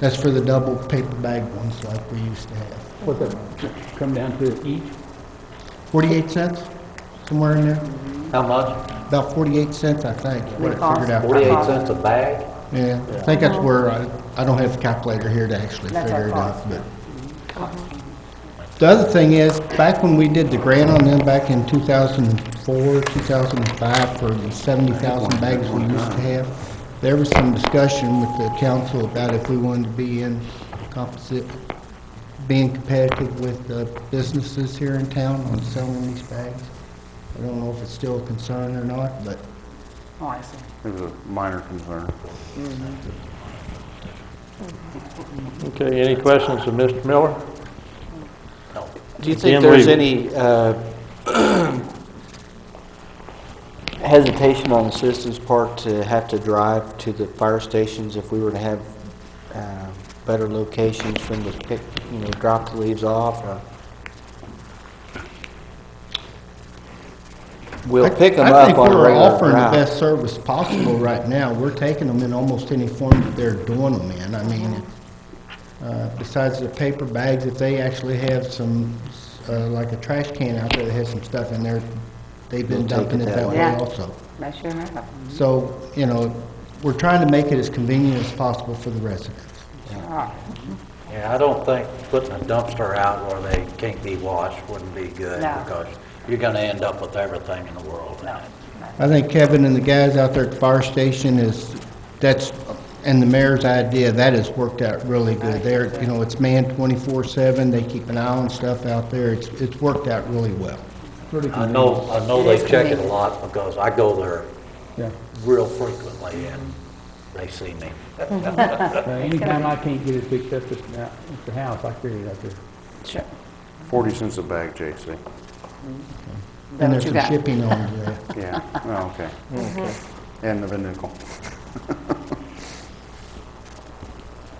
That's for the double paper bag ones like we used to have. What's that, come down to each? 48 cents, somewhere in there? How much? Uh-huh. About 48 cents, I think, is what it cost- figured out. Forty-eight cents a bag? Yeah, I think that's where, I, I don't have the calculator here to actually That's figure our it cost. out, but. The other thing is, back when we did the grant on them back in two thousand and four, two thousand and five, for the seventy thousand bags we used to have, there was some discussion with the council about if we wanted to be in composite, being competitive with the businesses here in town on selling these bags. I don't know if it's still a concern or not, but Oh, I see. It was a minor concern. Okay, any questions of Mr. Miller? Do you Jim think there's Reed. any uh, hesitation on the citizens' part to have to drive to the fire stations if we were to have uh, better locations when they pick, you know, drop the leaves off? uh, or- We'll pick them I up think on a we're regular offering the route. best service possible right now. We're taking them in almost any form that they're doing them in. I mean, uh, besides the paper bags, if they actually have some, uh, like a trash can out there that has some stuff in there, they've been We'll take dumping it it that that way. way Yeah. also. That sure happened. So, you know, we're trying to make it as convenient as possible for the residents. Alright. Yeah, I don't think putting a dumpster out where they can't be washed wouldn't be good, No. because you're gonna end up with everything in the world in it. I think Kevin and the guys out there at the fire station is, that's, and the mayor's idea, that has worked out really good. They're, you know, it's manned twenty-four seven, they keep an eye on stuff out there, it's, it's worked out really well. Pretty I know, I know It they is check it a convenient. lot, because I go there Yeah. real frequently, and they see me. Uh, Anytime I can't get it picked up at the- at the house, I carry it out there. Sure. 40 cents a bag, JC. That And what there's you some got? shipping on there. Yeah, oh, okay. And the nickel.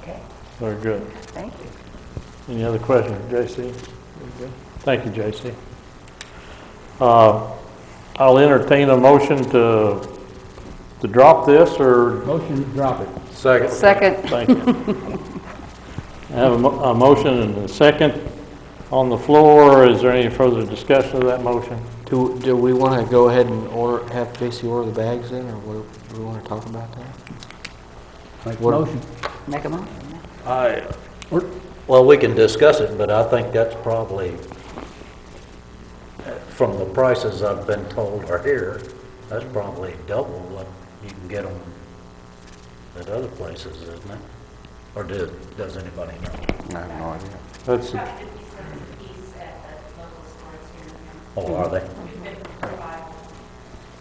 Okay, Very good. thank you. Any other questions, J.C.? Thank you, J.C. Uh, I'll entertain a motion to, to drop this, or, Motion to drop it. Second. Second, thank you. I have a mo- a motion and a second on the floor. Is there any further discussion of that motion? Do, do we want to go ahead and order, have Tracy order the bags in, or what, do we want to talk about that? Make a What- motion. make a motion. I, well, we can discuss it, but I think that's probably, from the prices I've been told are here, that's probably double what you can get them at other places, isn't it? Or do, does anybody know? I have no idea. That's, Oh, are they?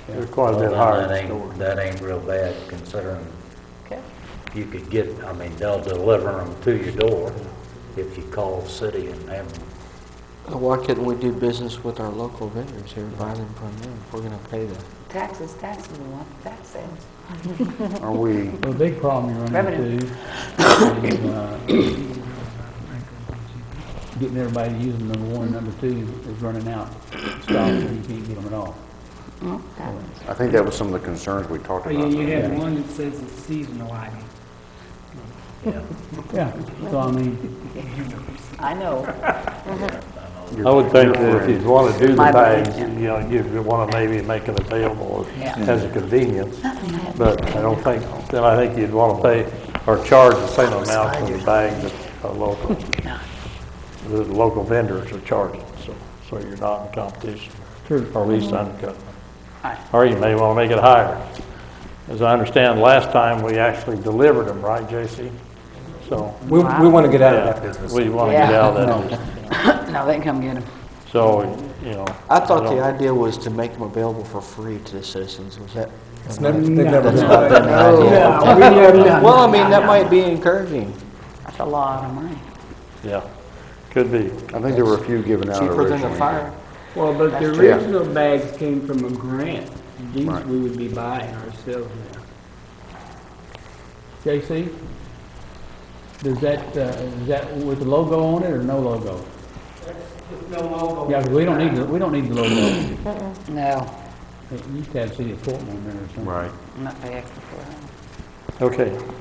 they're quite a Well, bit then higher. That in store. ain't, that ain't real bad considering Okay. you could get, I mean, they'll deliver them to your door if you call the city and have them. Uh, Why couldn't we do business with our local vendors here, buy them from them, if we're going to pay them? Taxes, taxes, we want taxes. Are we, Well, The big problem you run Revenue. into is uh, getting everybody to use them, number one, number two is running out. Stocks, and you can't get them at all. Okay. I think that was some of the concerns we talked Oh, yeah, about. you have one that says it's seasonal item. Yeah, so I mean, I know, I would think that if you'd want to do the My bags, you opinion. know, you'd want to maybe make it available Yeah. as a convenience, but I don't think, then I think you'd want to pay or charge the same amount for the bags that a local, the local vendors are charging, so, so you're not in competition, true. or at least undercutting. Aye. Or you may want to make it higher. As I understand, last time, we actually delivered them, right, J.C.? So, We, we want to get out of yeah, that business. we want to get Yeah. out of that business. no, they can come get them. So, you know. I thought don't- the idea was to make them available for free to the citizens, was that? It's never, they've never been Well, I mean, that might be encouraging. That's a lot of money. Yeah, could be. I think there were a few given out Cheaper than a originally. fire. Well, but the true. original bags came from a grant. These Right. we would be buying ourselves now. JC, does that, uh, is that with the logo on it or no logo? No logo. Yeah, 'cause we don't need, the- we don't need the logo. No, You used to have City of Portland on there or something. Right. I'm not paying extra for it. Okay,